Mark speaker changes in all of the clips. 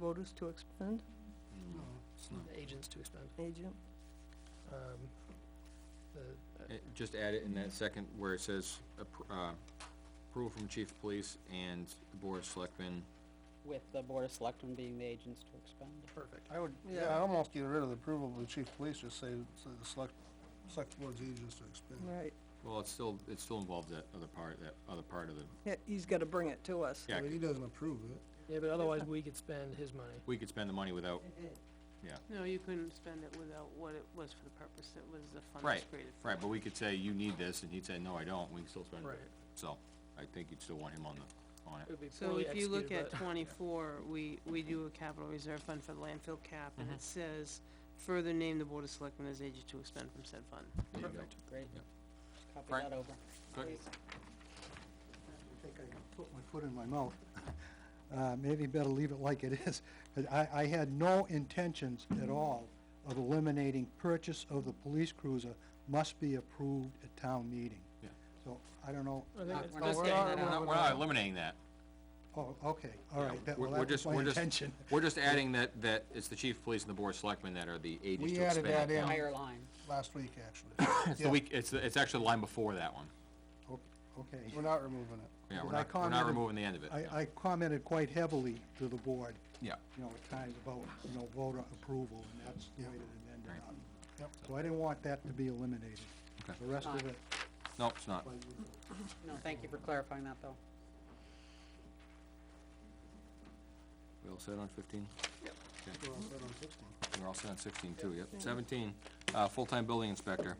Speaker 1: voters to expend
Speaker 2: No, it's not.
Speaker 3: agents to expend.
Speaker 1: agent?
Speaker 3: Um, the-
Speaker 2: Eh, Just add it in that second where it says, appro- uh, approval from chief of police and the board of selectmen.
Speaker 4: with the Board of Selectmen being the agents to expend.
Speaker 3: Perfect.
Speaker 5: I would, yeah, I almost get rid of the approval of the chief of police, just say, say the select, select board's agents to expend.
Speaker 1: Right,
Speaker 2: Well, it's still, it still involves that other part, that other part of the,
Speaker 1: yeah, he's gotta bring it to us.
Speaker 2: yeah,
Speaker 5: But he doesn't approve it.
Speaker 3: Yeah, but otherwise, we could spend his money.
Speaker 2: we could spend the money without,
Speaker 6: No, you couldn't spend it without what it was for the purpose that was the fund
Speaker 2: right,
Speaker 6: was created for.
Speaker 2: right, but we could say, you need this, and he'd say, no, I don't, we can still spend it.
Speaker 3: Right.
Speaker 2: So, I think you'd still want him on the, on
Speaker 3: It
Speaker 2: it.
Speaker 3: would be
Speaker 6: So
Speaker 3: poorly
Speaker 6: if you look at
Speaker 3: executed,
Speaker 6: twenty-four, we, we do a capital reserve fund for the landfill cap, and
Speaker 2: Mm-hmm.
Speaker 6: it says, further name the board of selectmen as agent to expend from said fund.
Speaker 2: There you go.
Speaker 4: Great.
Speaker 2: Yep.
Speaker 4: Copy
Speaker 2: Frank?
Speaker 4: that over.
Speaker 2: Good.
Speaker 7: I think I put my foot in my mouth. Uh, Maybe better leave it like it is. But I, I had no intentions at all of eliminating purchase of the police cruiser must be approved at town meeting.
Speaker 2: Yeah.
Speaker 7: So I don't know,
Speaker 3: but- I think it's-
Speaker 4: We're just getting that
Speaker 2: We're not,
Speaker 4: out.
Speaker 2: we're not eliminating that.
Speaker 7: oh, okay, all right, that,
Speaker 2: We're-
Speaker 7: well,
Speaker 2: we're
Speaker 7: that was
Speaker 2: just-
Speaker 7: my
Speaker 2: we're just-
Speaker 7: intention.
Speaker 2: We're just adding that, that it's the chief of police and the board of selectmen that are the agents
Speaker 5: We
Speaker 2: to
Speaker 5: added
Speaker 2: expend.
Speaker 5: that
Speaker 2: it.
Speaker 5: in
Speaker 4: Higher line.
Speaker 5: last week, actually.
Speaker 2: It's the week, it's, the- it's actually the line before that one.
Speaker 7: O- Okay.
Speaker 5: We're not removing it.
Speaker 2: Yeah, we're
Speaker 7: Because I
Speaker 2: not, we're not
Speaker 7: commented-
Speaker 2: removing the end of it. yeah.
Speaker 7: I, I commented quite heavily to the board,
Speaker 2: Yeah.
Speaker 7: you know, at times about, you know, voter approval, and that's the way that it ended
Speaker 2: Right.
Speaker 7: up.
Speaker 5: Yep.
Speaker 7: So I didn't want that to be eliminated.
Speaker 2: Okay.
Speaker 7: The rest of
Speaker 4: Fine.
Speaker 7: it,
Speaker 2: No, it's not.
Speaker 7: like,
Speaker 4: No, thank you for clarifying that, though.
Speaker 2: We all set on fifteen?
Speaker 5: We're all set on 16.
Speaker 2: We're all set on sixteen too, yep. Seventeen, uh, full-time building inspector.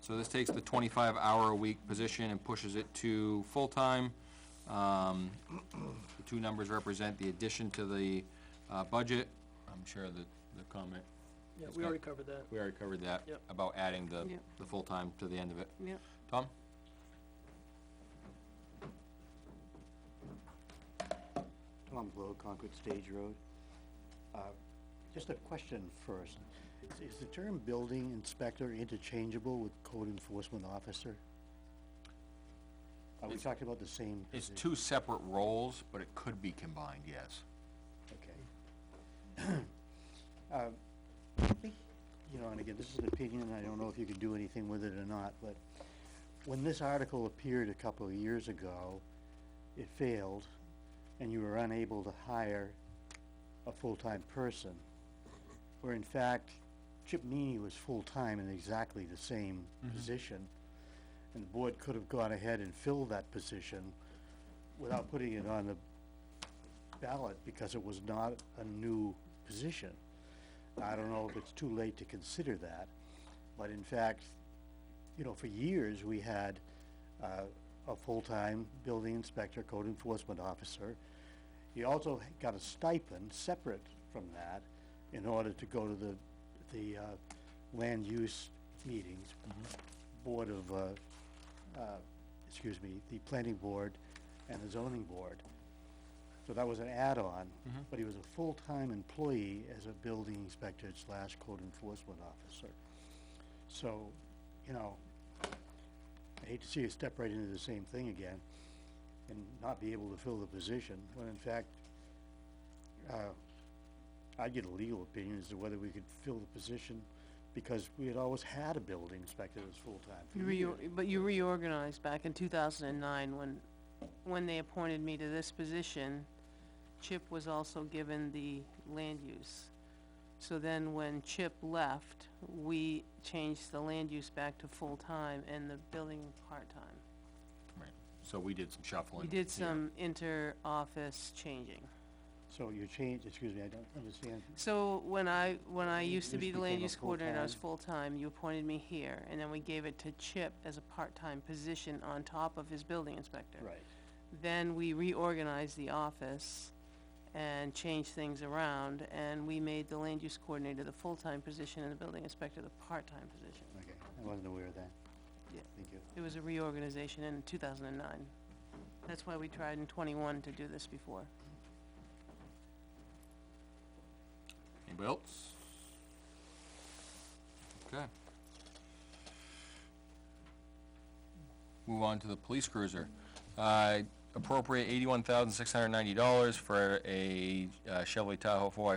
Speaker 2: So this takes the twenty-five hour a week position and pushes it to full-time. Um, the two numbers represent the addition to the, uh, budget. I'm sure that the comment,
Speaker 3: Yeah,
Speaker 2: it's
Speaker 3: we
Speaker 2: got-
Speaker 3: already covered that.
Speaker 2: we already covered that.
Speaker 3: Yep.
Speaker 2: About adding the,
Speaker 6: Yep.
Speaker 2: the full-time to the end of it.
Speaker 6: Yep.
Speaker 2: Tom?
Speaker 8: Tom Blow, Concord Stage Road. Uh, Just a question first. Is- Is the term building inspector interchangeable with code enforcement officer? Are we talking about the same?
Speaker 2: It's
Speaker 8: posi-
Speaker 2: two separate roles, but it could be combined, yes.
Speaker 8: Okay. Uh, I think, You know, and again, this is an opinion, and I don't know if you could do anything with it or not, but when this article appeared a couple of years ago, it failed, and you were unable to hire a full-time person, where in fact, Chip Meany was full-time in exactly the same position, and the board could have gone ahead and filled that position without putting it on the ballot because it was not a new position. I don't know if it's too late to consider that, but in fact, you know, for years, we had, uh, a full-time building inspector, code enforcement officer. He also h- got a stipend separate from that in order to go to the, the, uh, land use meetings, board of, uh, uh, excuse me, the planning board and the zoning board. So that was an add-on, but he was a full-time employee as a building inspector slash code enforcement officer. So, you know, I hate to see you step right into the same thing again and not be able to fill the position, when in fact, uh, I'd get a legal opinion as to whether we could fill the position, because we had always had a building inspector that was full-time
Speaker 6: You
Speaker 8: for years.
Speaker 6: reor- but you reorganized back in two thousand and nine, when, when they appointed me to this position, Chip was also given the land use. So then when Chip left, we changed the land use back to full-time and the building part-time.
Speaker 2: Right. So we did some shuffling.
Speaker 6: We did
Speaker 2: here.
Speaker 6: some inter-office changing.
Speaker 8: So you changed, excuse me, I don't understand.
Speaker 6: So when I, when I used to
Speaker 8: just
Speaker 6: be the land
Speaker 8: became a
Speaker 6: use coordinator, I was full-time, you appointed me here, and then we gave it to Chip as a part-time position on top of his building inspector.
Speaker 8: Right.
Speaker 6: Then we reorganized the office and changed things around, and we made the land use coordinator the full-time position and the building inspector the part-time position.
Speaker 8: Okay, I wasn't aware of that.
Speaker 6: Yeah.
Speaker 8: Thank you.
Speaker 6: It was a reorganization in two thousand and nine. That's why we tried in twenty-one to do this before.
Speaker 2: Anybody else? Okay. Move on to the police cruiser. Uh, appropriate eighty-one thousand, six hundred and ninety dollars for a uh, Chevrolet Tahoe four